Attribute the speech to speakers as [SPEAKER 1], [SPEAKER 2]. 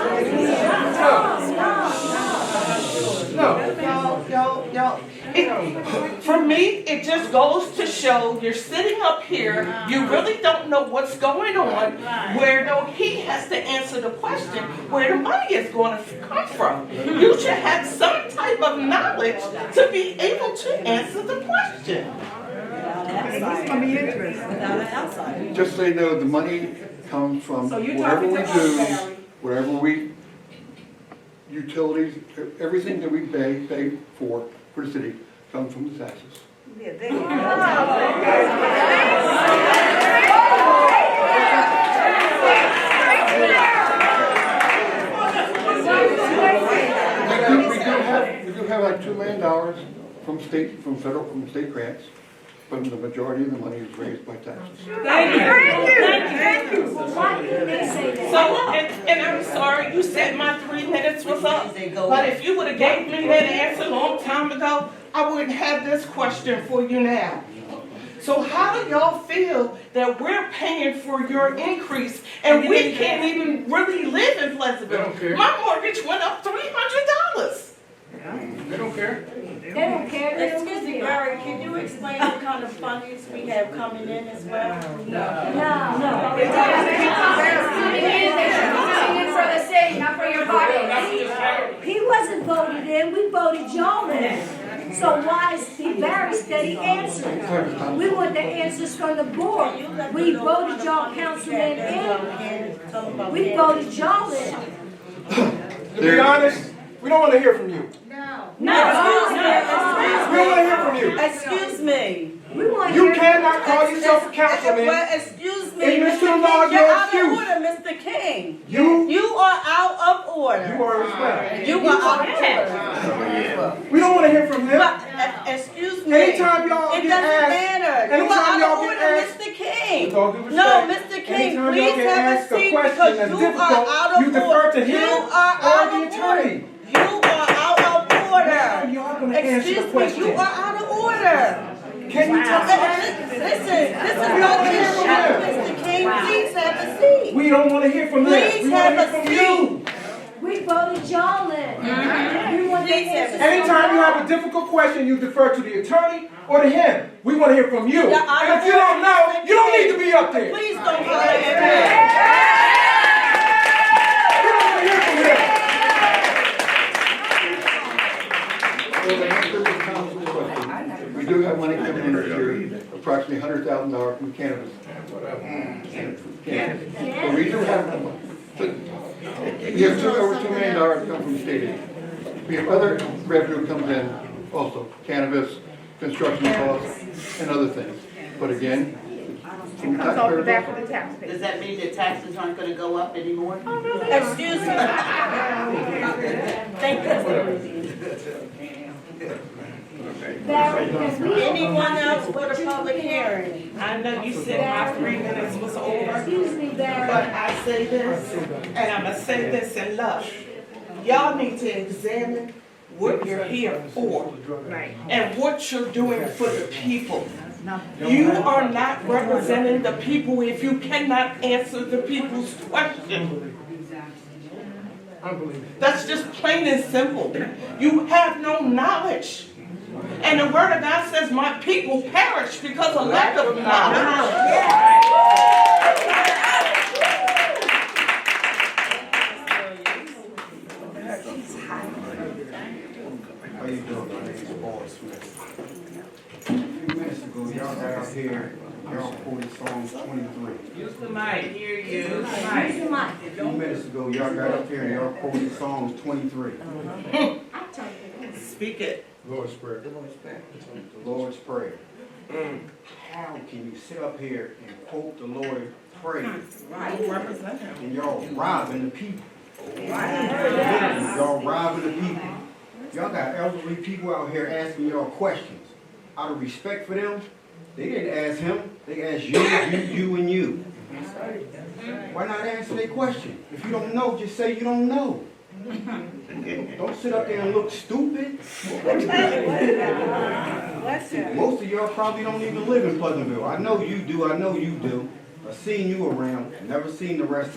[SPEAKER 1] me, it just goes to show you're sitting up here, you really don't know what's going on, where no, he has to answer the question where the money is going to come from. You should have some type of knowledge to be able to answer the question.
[SPEAKER 2] It's gonna be interesting. Without an outside.
[SPEAKER 3] Just so you know, the money comes from
[SPEAKER 2] So you're
[SPEAKER 3] whatever
[SPEAKER 2] talking
[SPEAKER 3] we
[SPEAKER 2] to us,
[SPEAKER 3] do,
[SPEAKER 2] Valerie.
[SPEAKER 3] whatever we, utilities, everything that we pay, pay for, for the city, comes from the taxes.
[SPEAKER 2] Oh.
[SPEAKER 3] We do, we do have, we do have like two million dollars from state, from federal, from state grants, but the majority of the money is raised by taxes.
[SPEAKER 1] Thank you.
[SPEAKER 4] Why did they say that?
[SPEAKER 1] So, and, and I'm sorry, you said my three minutes was up, but if you would've gave me that answer a long time ago, I wouldn't have this question for you now. So how do y'all feel that we're paying for your increase and we can't even really live in Pleasantville? My mortgage went up three hundred dollars.
[SPEAKER 4] They don't care, they don't
[SPEAKER 2] Excuse me,
[SPEAKER 4] care.
[SPEAKER 2] Barry, can you explain what kind of fundings we have coming in as well?
[SPEAKER 4] No, no. It's coming in, they should be coming in for the city, not for your pocket.
[SPEAKER 5] He wasn't voted in, we voted y'all in. So why is he embarrassed that he answered? We want the answers from the board. We voted y'all councilmen in,
[SPEAKER 2] in.
[SPEAKER 5] we voted y'all in.
[SPEAKER 6] To be honest, we don't want to hear from you. We don't
[SPEAKER 2] No.
[SPEAKER 6] want to hear from you.
[SPEAKER 2] Excuse me.
[SPEAKER 5] We want to
[SPEAKER 6] You
[SPEAKER 5] hear.
[SPEAKER 6] cannot call yourself a councilman.
[SPEAKER 2] Well, excuse me,
[SPEAKER 6] And
[SPEAKER 2] Mr.
[SPEAKER 6] Mr.
[SPEAKER 2] King, you're
[SPEAKER 6] Law, you're
[SPEAKER 2] out of
[SPEAKER 6] excused.
[SPEAKER 2] order, Mr. King.
[SPEAKER 6] You,
[SPEAKER 2] You are out of order.
[SPEAKER 6] you are respect.
[SPEAKER 2] You are out of order.
[SPEAKER 6] We don't want to hear from him.
[SPEAKER 2] But, e- excuse me.
[SPEAKER 6] Anytime y'all
[SPEAKER 2] It
[SPEAKER 6] get
[SPEAKER 2] doesn't
[SPEAKER 6] asked,
[SPEAKER 2] matter. You
[SPEAKER 6] anytime
[SPEAKER 2] are out
[SPEAKER 6] y'all
[SPEAKER 2] of
[SPEAKER 6] get
[SPEAKER 2] order,
[SPEAKER 6] asked-
[SPEAKER 2] Mr. King.
[SPEAKER 6] With all due
[SPEAKER 2] No,
[SPEAKER 6] respect,
[SPEAKER 2] Mr. King,
[SPEAKER 6] anytime y'all
[SPEAKER 2] please
[SPEAKER 6] get
[SPEAKER 2] have a
[SPEAKER 6] asked a
[SPEAKER 2] seat
[SPEAKER 6] question
[SPEAKER 2] because
[SPEAKER 6] that's
[SPEAKER 2] you are
[SPEAKER 6] difficult,
[SPEAKER 2] out of
[SPEAKER 6] you
[SPEAKER 2] order.
[SPEAKER 6] defer to
[SPEAKER 2] You
[SPEAKER 6] him
[SPEAKER 2] are
[SPEAKER 6] or
[SPEAKER 2] out
[SPEAKER 6] the
[SPEAKER 2] of
[SPEAKER 6] attorney.
[SPEAKER 2] order. You are out of
[SPEAKER 6] Now
[SPEAKER 2] order.
[SPEAKER 6] y'all gonna answer the
[SPEAKER 2] Excuse me, you
[SPEAKER 6] question.
[SPEAKER 2] are out of order.
[SPEAKER 6] Can you
[SPEAKER 2] Uh,
[SPEAKER 6] talk?
[SPEAKER 2] uh, Listen, this is not the issue, Mr. King, please have a seat.
[SPEAKER 6] We don't want to hear from him.
[SPEAKER 2] Please
[SPEAKER 6] We want to
[SPEAKER 2] have
[SPEAKER 6] hear
[SPEAKER 2] a
[SPEAKER 6] from you.
[SPEAKER 2] seat.
[SPEAKER 5] We voted y'all in. We want the
[SPEAKER 2] Please have a
[SPEAKER 5] answers. from the
[SPEAKER 6] Anytime you
[SPEAKER 5] board.
[SPEAKER 6] have a difficult question, you defer to the attorney or to him. We want to hear from you.
[SPEAKER 2] Yeah, I
[SPEAKER 6] And if you don't know, you don't need to be up there.
[SPEAKER 2] Please don't holler at me.
[SPEAKER 6] We don't want to hear from him.
[SPEAKER 3] Well, the answer to Tom's question, We do have money coming in this year, approximately hundred thousand dollars from cannabis. Cannabis. But we do have, we have two, over two million dollars come from state aid. We have other revenue comes in also, cannabis, construction costs, and other things. But again, from taxpayers,
[SPEAKER 7] Does that mean that taxes aren't gonna go up anymore?
[SPEAKER 2] Excuse me. Thank you.
[SPEAKER 5] Barry, because we
[SPEAKER 2] Anyone else for the public hearing?
[SPEAKER 1] I know you said my three minutes was over.
[SPEAKER 5] Excuse me, Barry.
[SPEAKER 1] But I say this, and I'm gonna say this in love. Y'all need to examine what you're here for and what you're doing for the people. You are not representing the people if you cannot answer the people's question. That's just plain and simple. You have no knowledge. And the word of God says, my people perish because of lack of knowledge.
[SPEAKER 8] How you doing? My name is Boyd Smith. A few minutes ago, y'all got up here, y'all quoted Psalms twenty-three.
[SPEAKER 1] Use the mic, hear you.
[SPEAKER 5] Use your mic.
[SPEAKER 8] A few minutes ago, y'all got up here and y'all quoted Psalms twenty-three,
[SPEAKER 1] Speak it.
[SPEAKER 3] Lord's Prayer.
[SPEAKER 8] the Lord's Prayer. How can you sit up here and quote the Lord's Prayer
[SPEAKER 1] Represent him.
[SPEAKER 8] and y'all robbing the people? Y'all robbing the people. Y'all got elderly people out here asking y'all questions. Out of respect for them, they didn't ask him, they asked you, you, you, and you. Why not answer their question? If you don't know, just say you don't know. Don't sit up there and look stupid. Most of y'all probably don't even live in Pleasantville. I know you do, I know you do. I've seen you around, never seen the rest